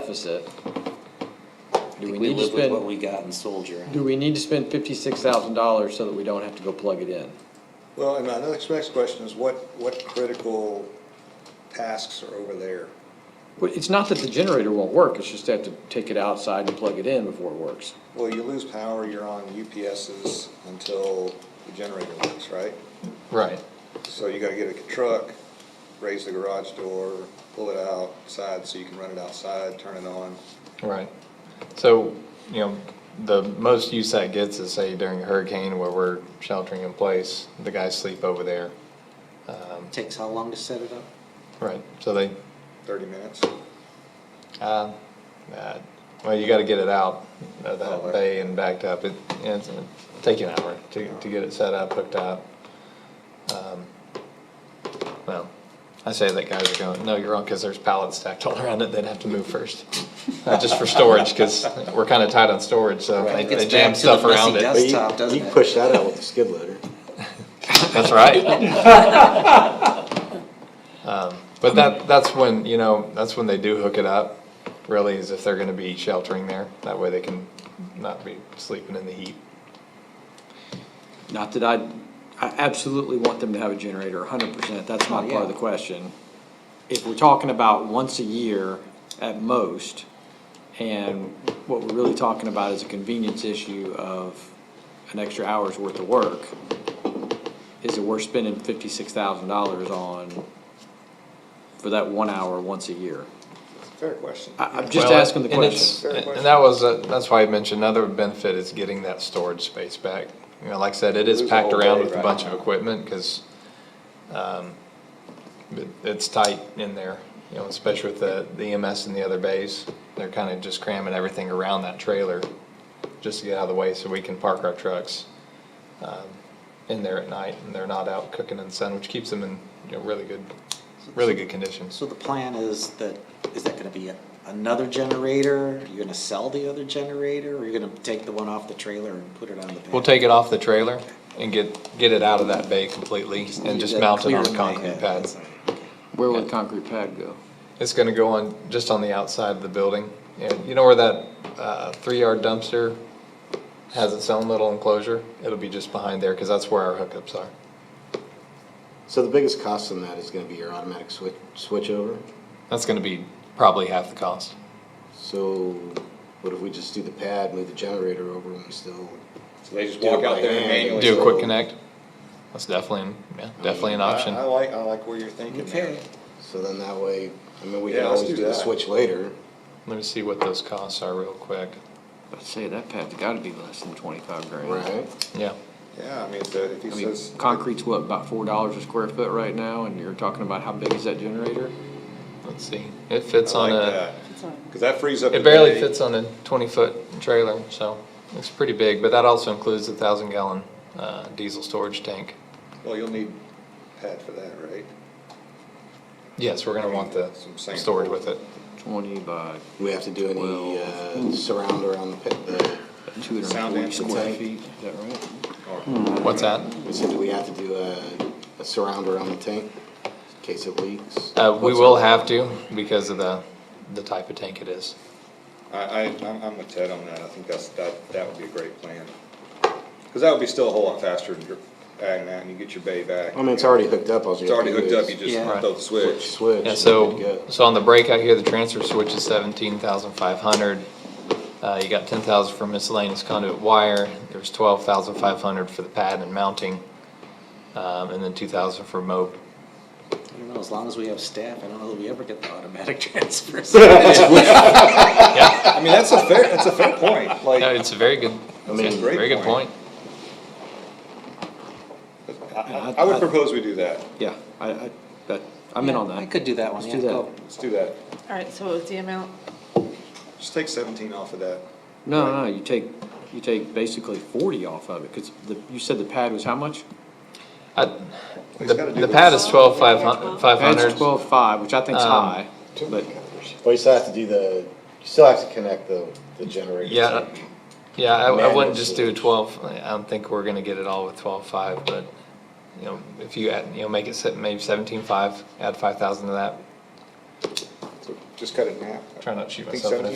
deficit, do we think we need to live with what spend, we got in Soldier. do we need to spend fifty-six thousand dollars so that we don't have to go plug it in? Well, and my next, next question is what, what critical tasks are over there? But it's not that the generator won't work, it's just they have to take it outside and plug it in before it works. Well, you lose power, you're on UPSs until the generator works, right? Right. So you gotta get a truck, raise the garage door, pull it outside so you can run it outside, turn it on. Right. So, you know, the most use that gets is say during a hurricane where we're sheltering in place, the guys sleep over there. Takes how long to set it up? Right, so they, Thirty minutes? uh, uh, well, you gotta get it out of Oh, that right. bay and backed up. It, it's, it'll take you an hour to, to get it set up, hooked up. Um, Well, I say that guys are going, no, you're wrong, cause there's pallets stacked all around it. They'd have to move first. Not just for storage, cause we're kinda tight on storage, so Right. they It gets they jam back to the stuff around messy dust. it. But you- Desktop, doesn't You it? can push that out with a skid loader. That's right. Um, But that, that's when, you know, that's when they do hook it up, really, is if they're gonna be sheltering there, that way they can not be sleeping in the heat. Not that I, I absolutely want them to have a generator, hundred percent, that's not part of the question. If we're talking about once a year at most, and what we're really talking about is a convenience issue of an extra hour's worth of work, is that we're spending fifty-six thousand dollars on, for that one hour once a year. Fair question. I, I'm just Well, asking the and it's- question. Fair And that was, uh, that's why I mentioned another benefit is getting that storage space back. You know, like I said, it is Lose a packed whole around day with a right bunch of now. equipment, cause, um, it, it's tight in there, you know, especially with the, the EMS and the other bays. They're kinda just cramming everything around that trailer, just to get out of the way so we can park our trucks, um, in there at night, and they're not out cooking in the sun, which keeps them in, you know, really good, really good condition. So the plan is that, is that gonna be a- another generator? You're gonna sell the other generator, or you're gonna take the one off the trailer and put it on the? We'll take it off the trailer and get, get it out of that bay completely and just mount it on the the concrete pad. Where would the concrete pad go? It's gonna go on, just on the outside of the building. And you know where that, uh, three-yard dumpster has its own little enclosure? It'll be just behind there, cause that's where our hookups are. So the biggest cost on that is gonna be your automatic switch, switchover. That's gonna be probably half the cost. So what if we just do the pad, move the generator over and we still? So they just Do it walk out by there and hand. manually. Do a quick so- connect. That's definitely, an- yeah, definitely an I- option. I like, I like where you're thinking there. Okay, So then that way, I mean, we Yeah, can let's always do do the that. switch later. Let me see what those costs are real quick. I'd say that pad's gotta be less than twenty-five grand. Right. Yeah. Yeah, I mean, if the- if he I mean, says, concrete's what, about four dollars a square foot right now, and you're talking about how big is that generator? Let's see. It I fits on like a. that. Cause that frees up. It the barely day. fits on a twenty-foot trailer, so it's pretty big, but that also includes a thousand gallon, uh, diesel storage tank. Well, you'll need pad for that, right? Yes, we're gonna want the Some sand. storage with it. Twenty by We have to do any, uh, surround around the pit, the, two hundred and forty Sound dampening square tank. feet, is that right? Or- Hmm. What's that? we said that we have to do a, a surround around the tank in case it leaks. Uh, we will have to because of the, the type of tank it is. I, I, I'm, I'm with Ted on that, I think that's, that, that would be a great plan. Cause that would be still a whole lot faster than you're adding that and you get your bay back. I mean, it's already hooked up. All you It's have already to hooked do up, is you just Yeah. throw the Switch, switch. switch. Yeah, and we're so, good. so on the breakout here, the transfer switch is seventeen thousand five hundred. Uh, you got ten thousand for miscellaneous conduit wire, there's twelve thousand five hundred for the pad and mounting, um, and then two thousand for mob. I don't know, as long as we have staff, I don't know that we ever get the automatic transfers. Yeah. I mean, that's a fair, that's a fair point, No, like, it's a very good, I mean, it's a great very good point. point. I, I- I would propose we do that, Yeah, I, I, that, I'm in on I that. could do that one, Let's yeah, do that. go. let's do that. All right, so what was the amount? Just take seventeen off of that, No, no, you take, you take basically forty off of it, cause the, you said the pad was how much? I- He's The, gotta do the the- pad is twelve five hun, five Pad's hundred. twelve-five, which I think's Um, high, but Well, you still have to do the, you still have to connect the, the generator. Yeah, uh, yeah, I, I wouldn't Manual just do switch. twelve, I don't think we're gonna get it all with twelve five, but, you know, if you add, you know, make it se- maybe seventeen five, add five thousand to that. just cut it in half. Try not to shoot I think myself in the 17